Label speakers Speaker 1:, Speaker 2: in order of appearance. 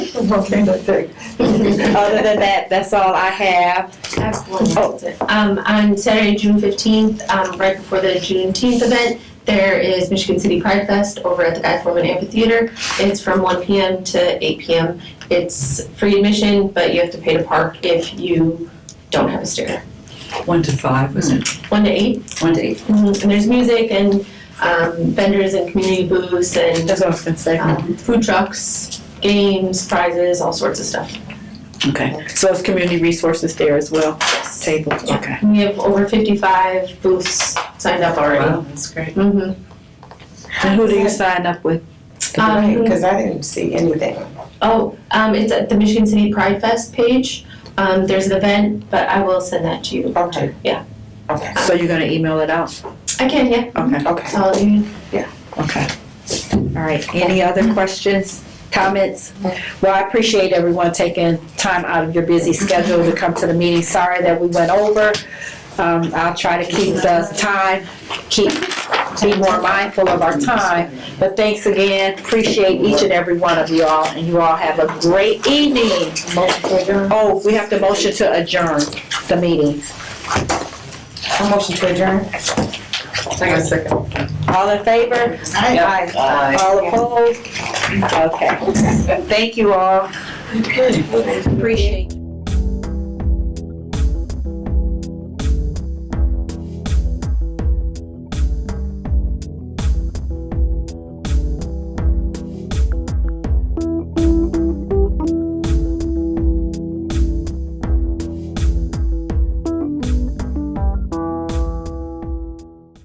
Speaker 1: Okay, that's it.
Speaker 2: Um,
Speaker 3: Other than that, that's all I have.
Speaker 2: I have one
Speaker 3: Oh,
Speaker 2: announcement. Um, on Saturday, June fifteenth, um, right before the Juneteenth event, there is Michigan City Pride Fest over at the Guy Foreman Amphitheater. It's from one PM to eight PM. It's free admission, but you have to pay to park if you don't have a sticker.
Speaker 4: One to five, wasn't it?
Speaker 2: One to eight, Mm-hmm.
Speaker 4: One to eight.
Speaker 2: and there's music and, um, vendors and community booths and,
Speaker 3: That's what I was gonna say.
Speaker 2: um, food trucks, games, prizes, all sorts of stuff.
Speaker 4: Okay.
Speaker 3: So it's community resources there as well,
Speaker 2: Yes.
Speaker 3: tables, okay.
Speaker 2: We have over fifty-five booths signed up already.
Speaker 4: Wow, that's great.
Speaker 2: Mm-hmm.
Speaker 3: And who do you sign up with?
Speaker 2: Um,
Speaker 1: Because I didn't see anything.
Speaker 2: Oh, um, it's at the Michigan City Pride Fest page. Um, there's an event, but I will send that to you.
Speaker 1: Okay.
Speaker 2: Yeah.
Speaker 1: Okay,
Speaker 3: So you're gonna email it out?
Speaker 2: I can, yeah.
Speaker 3: Okay,
Speaker 1: okay.
Speaker 2: I'll let you.
Speaker 3: okay. All right, any other questions, comments? Well, I appreciate everyone taking time out of your busy schedule to come to the meeting. Sorry that we went over. Um, I'll try to keep the time, keep, be more mindful of our time. But thanks again, appreciate each and every one of you all, and you all have a great evening. Oh, we have to motion to adjourn the meeting.
Speaker 1: A motion to adjourn? Second, second.
Speaker 3: All in favor?
Speaker 1: Aye.
Speaker 4: Aye.
Speaker 3: All opposed? Okay. Thank you all. Appreciate it.